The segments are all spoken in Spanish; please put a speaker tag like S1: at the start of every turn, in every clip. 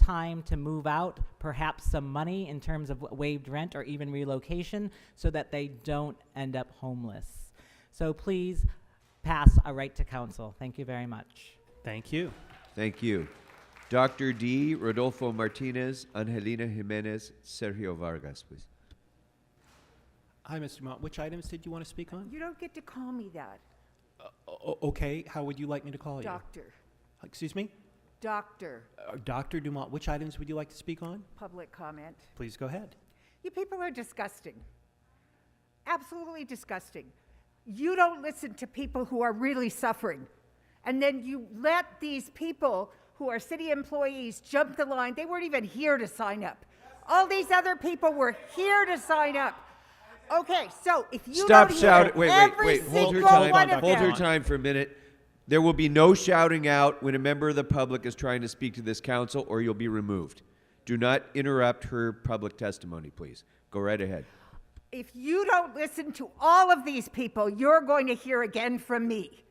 S1: time to move out, perhaps some money in terms of waived rent or even relocation, so that they don't end up homeless. So please pass a right to counsel. Thank you very much.
S2: Thank you.
S3: Thank you. Dr. D. Rodolfo Martinez, Angelina Jimenez, Sergio Vargas, please.
S2: Hi, Mr. Dumont. Which items did you want to speak on?
S4: You don't get to call me that.
S2: O- okay, how would you like me to
S3: Oh,
S2: call you? Uh,
S4: Doctor,
S2: Excuse me?
S4: doctor,
S2: Uh, Dr. Dumont, which items would you like to speak on?
S4: public comment.
S2: Please go ahead.
S4: You people are disgusting. Absolutely disgusting. You don't listen to people who are really suffering. And then you let these people who are city employees jump the line. They weren't even here to sign up. All these other people were here to sign up. Okay, so if you
S3: Stop
S4: don't
S3: shouting.
S4: hear
S3: Wait, wait,
S4: every
S3: wait. Hold her
S4: single
S3: time.
S4: one of
S3: Hold
S4: them,
S3: her time for a minute. There will be no shouting out when a member of the public is trying to speak to this council, or you'll be removed. Do not interrupt her public testimony, please. Go right ahead.
S4: if you don't listen to all of these people, you're going to hear again from me.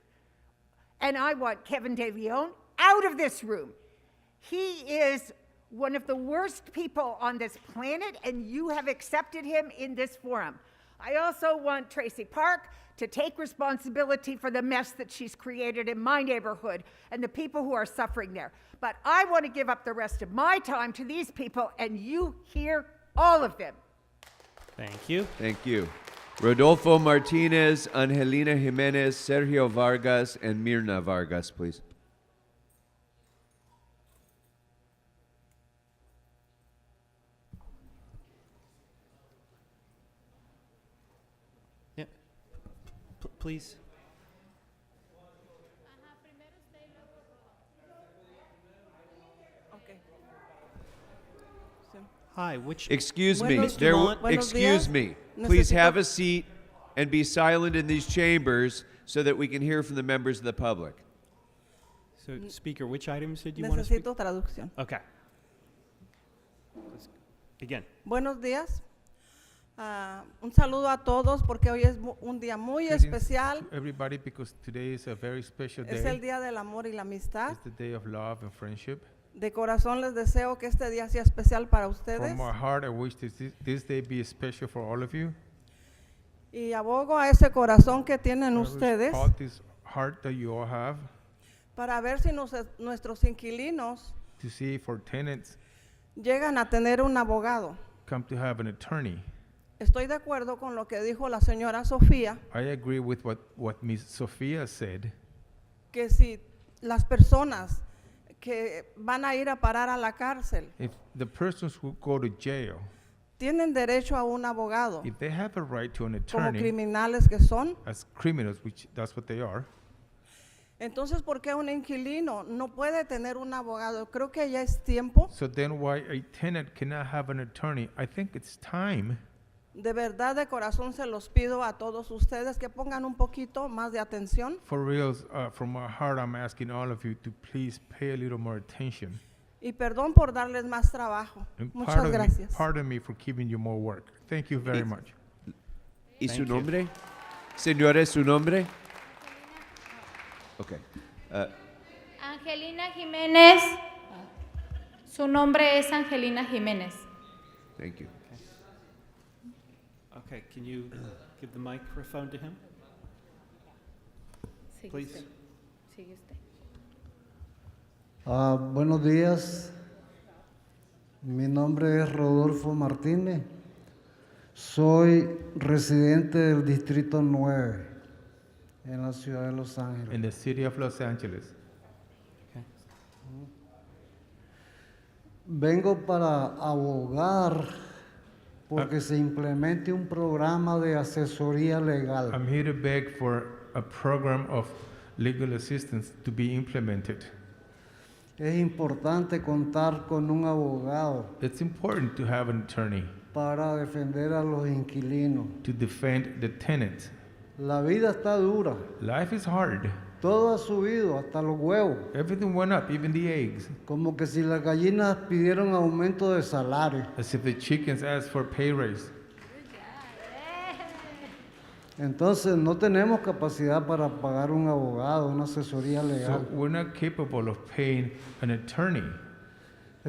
S4: And I want Kevin De Leon out of this room. He is one of the worst people on this planet, and you have accepted him in this forum. I also want Tracy Park to take responsibility for the mess that she's created in my neighborhood and the people who are suffering there. But I want to give up the rest of my time to these people, and you hear all of them.
S2: Thank you.
S3: Thank you. Rodolfo Martinez, Angelina Jimenez, Sergio Vargas, and Mirna Vargas, please.
S2: Yeah. P- please. Hi, which
S3: Excuse me.
S5: Buenos
S3: There,
S5: Dumont, buenos
S3: excuse
S5: días.
S3: me.
S5: Necesito-
S3: Please have a seat and be silent in these chambers so that we can hear from the members of the public.
S2: so speaker, which items did you want to speak?
S5: Necesito traducción.
S2: Okay. Let's begin.
S5: Buenos días. Ah, un saludo a todos porque hoy es mu- un día muy
S6: Greetings
S5: especial.
S6: to everybody because today is a very special day.
S5: Es el día del amor y la amistad.
S6: It's the day of love and friendship.
S5: De corazón les deseo que este día sea especial para ustedes
S6: From my heart, I wish this, this day be special for all of you.
S5: y abogo a ese corazón que tienen
S6: I wish
S5: ustedes
S6: All this heart that you all have
S5: para ver si nos- nuestros inquilinos
S6: to see if our tenants
S5: llegan a tener un abogado.
S6: come to have an attorney.
S5: Estoy de acuerdo con lo que dijo la señora Sofía,
S6: I agree with what, what Ms. Sophia said.
S5: que si las personas que van a ir a parar a la cárcel
S6: If the persons who go to jail,
S5: tienen derecho a un abogado
S6: if they have a right to an
S5: como
S6: attorney,
S5: criminales que son.
S6: as criminals, which that's what they are,
S5: Entonces, ¿por qué un inquilino no puede tener un abogado? Creo que ya es tiempo.
S6: so then why a tenant cannot have an attorney? I think it's time.
S5: De verdad, de corazón se los pido a todos ustedes que pongan un poquito más de atención
S6: For real, uh, from my heart, I'm asking all of you to please pay a little more attention.
S5: y perdón por darles más trabajo.
S6: And
S5: Muchas
S6: pardon
S5: gracias.
S6: Me, pardon me for giving you more work. Thank you very much.
S3: ¿Y su
S2: Thank you.
S3: nombre? Señores, su nombre? Okay. Uh,
S7: Angelina Jiménez. Su nombre es Angelina Jiménez.
S3: thank you.
S2: Okay, can you give the microphone to him,
S7: Sigue
S2: please?
S7: usted, sigue usted.
S8: Ah, buenos días. Mi nombre es Rodolfo Martínez. Soy residente del Distrito 9 en la ciudad de Los Ángeles.
S6: In the city of Los Angeles,
S8: Vengo para abogar porque se implemente un programa de asesoría legal.
S6: I'm here to beg for a program of legal assistance to be implemented.
S8: Es importante contar con un abogado
S6: It's important to have an attorney
S8: para defender a los inquilinos.
S6: to defend the tenant.
S8: La vida está dura.
S6: Life is hard.
S8: Todo ha subido hasta los huevos.
S6: Everything went up, even the eggs.
S8: Como que si las gallinas pidieron aumento de salario.
S6: As if the chickens asked for pay raise.
S8: Entonces no tenemos capacidad para pagar un abogado, una asesoría
S6: So
S8: legal.
S6: we're not capable of paying an attorney.